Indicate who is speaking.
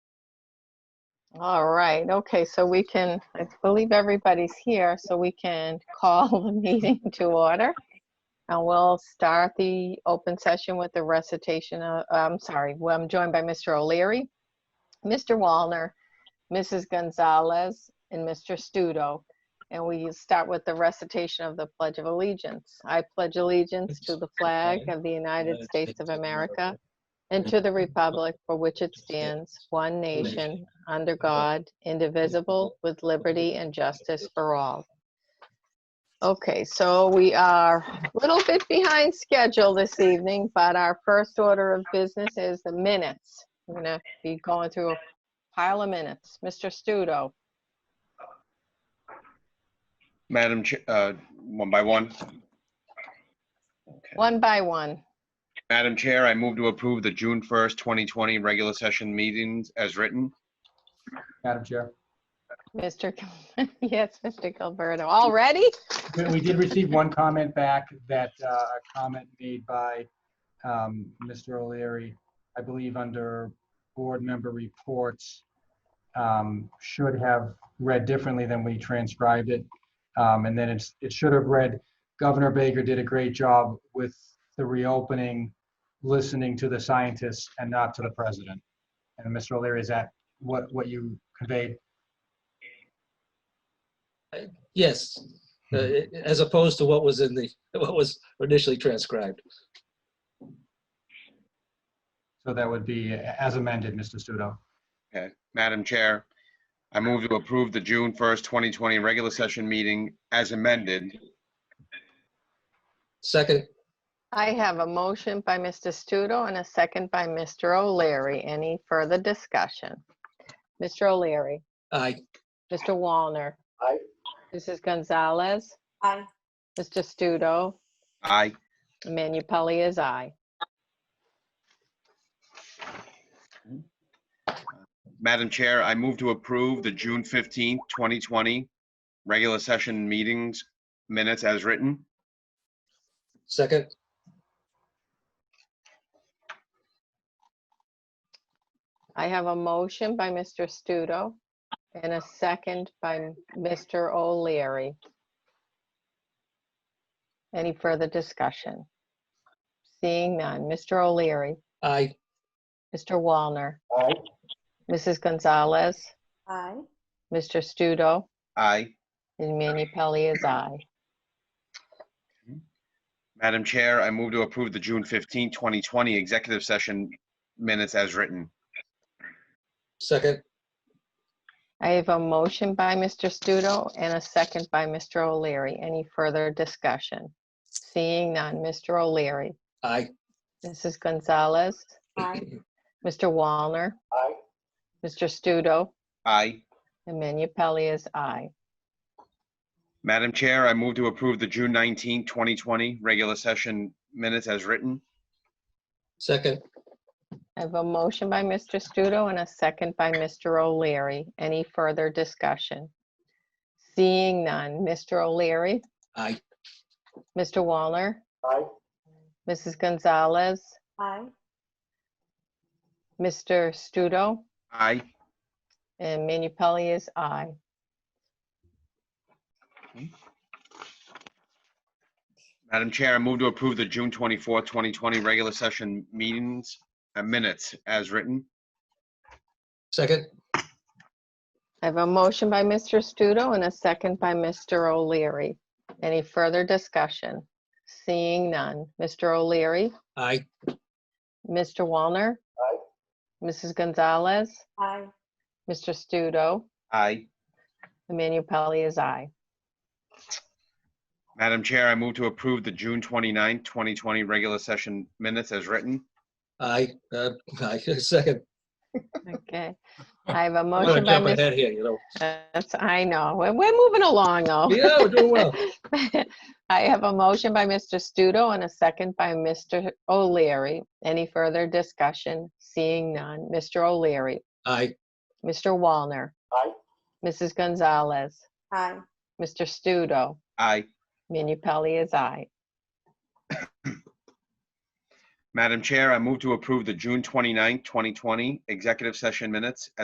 Speaker 1: All right, okay, so we can, I believe everybody's here, so we can call the meeting to order. And we'll start the open session with the recitation, of- I'm sorry, well, I'm joined by Mr. O'Leary, Mr. Walner, Mrs. Gonzalez, and Mr. Studo. And we start with the recitation of the Pledge of Allegiance. I pledge allegiance to the flag of the United States of America and to the republic for which it stands, one nation, under God, indivisible, with liberty and justice for all. Okay, so we are a little bit behind schedule this evening, but our first order of business is the minutes. We're gonna be going through a pile of minutes. Mr. Studo,
Speaker 2: Madam, Ch- uh, one by one.
Speaker 1: one by one.
Speaker 2: Madam Chair, I move to approve the June 1st, 2020 regular session meetings as written.
Speaker 3: Madam Chair.
Speaker 1: Mr. Gil- Yes, Mr. Gilberto, already?
Speaker 3: We- We did receive one comment back that, uh, a comment made by um, Mr. O'Leary, I believe under board member reports, um, should have read differently than we transcribed it. Um, And then it's, it should have read, Governor Baker did a great job with the reopening, listening to the scientists and not to the president. And Mr. O'Leary, is that what, what you conveyed?
Speaker 4: Yes, uh, as opposed to what was in the, what was initially transcribed.
Speaker 3: So that would be as amended, Mr. Studo.
Speaker 2: Madam Chair, I move to approve the June 1st, 2020 regular session meeting as amended.
Speaker 4: Second,
Speaker 1: I have a motion by Mr. Studo and a second by Mr. O'Leary. Any further discussion? Mr. O'Leary,
Speaker 4: aye.
Speaker 1: Mr. Walner.
Speaker 3: Aye.
Speaker 1: Mrs. Gonzalez.
Speaker 5: Aye.
Speaker 1: Mr. Studo,
Speaker 2: Aye.
Speaker 1: Manu Pelley is aye.
Speaker 2: Madam Chair, I move to approve the June 15th, 2020 regular session meetings minutes as written.
Speaker 4: Second,
Speaker 1: I have a motion by Mr. Studo and a second by Mr. O'Leary. Any further discussion? Seeing none. Mr. O'Leary,
Speaker 4: aye.
Speaker 1: Mr. Walner. Mrs. Gonzalez,
Speaker 5: Aye.
Speaker 1: Mr. Studo,
Speaker 2: Aye.
Speaker 1: and Manu Pelley is aye.
Speaker 2: Madam Chair, I move to approve the June 15th, 2020 executive session minutes as written.
Speaker 4: Second,
Speaker 1: I have a motion by Mr. Studo and a second by Mr. O'Leary. Any further discussion? Seeing none. Mr. O'Leary,
Speaker 4: aye.
Speaker 1: Mrs. Gonzalez,
Speaker 5: Aye.
Speaker 1: Mr. Walner.
Speaker 3: Aye.
Speaker 1: Mr. Studo,
Speaker 2: Aye.
Speaker 1: and Manu Pelley is aye.
Speaker 2: Madam Chair, I move to approve the June 19, 2020 regular session minutes as written.
Speaker 4: Second,
Speaker 1: I have a motion by Mr. Studo and a second by Mr. O'Leary. Any further discussion? Seeing none. Mr. O'Leary,
Speaker 4: aye.
Speaker 1: Mr. Walner,
Speaker 3: Aye.
Speaker 1: Mrs. Gonzalez,
Speaker 5: Aye.
Speaker 1: Mr. Studo,
Speaker 2: Aye.
Speaker 1: and Manu Pelley is aye.
Speaker 2: Madam Chair, I move to approve the June 24, 2020 regular session meetings, uh, minutes as written.
Speaker 4: Second,
Speaker 1: I have a motion by Mr. Studo and a second by Mr. O'Leary. Any further discussion? Seeing none. Mr. O'Leary,
Speaker 4: aye.
Speaker 1: Mr. Walner. Mrs. Gonzalez,
Speaker 5: Aye.
Speaker 1: Mr. Studo,
Speaker 2: Aye.
Speaker 1: Manu Pelley is aye.
Speaker 2: Madam Chair, I move to approve the June 29, 2020 regular session minutes as written.
Speaker 4: Aye, uh, aye. Second,
Speaker 1: Okay. I have a
Speaker 4: I'm gonna
Speaker 1: motion by
Speaker 4: jump
Speaker 1: Mr.
Speaker 4: ahead here, you know.
Speaker 1: That's, I know. We're, we're moving along though.
Speaker 4: Yeah, we're doing well.
Speaker 1: I have a motion by Mr. Studo and a second by Mr. O'Leary. Any further discussion? Seeing none. Mr. O'Leary,
Speaker 4: Aye.
Speaker 1: Mr. Walner.
Speaker 3: Aye.
Speaker 1: Mrs. Gonzalez,
Speaker 5: Aye.
Speaker 1: Mr. Studo,
Speaker 2: Aye.
Speaker 1: Manu Pelley is aye.
Speaker 2: Madam Chair, I move to approve the June 29, 2020 executive session minutes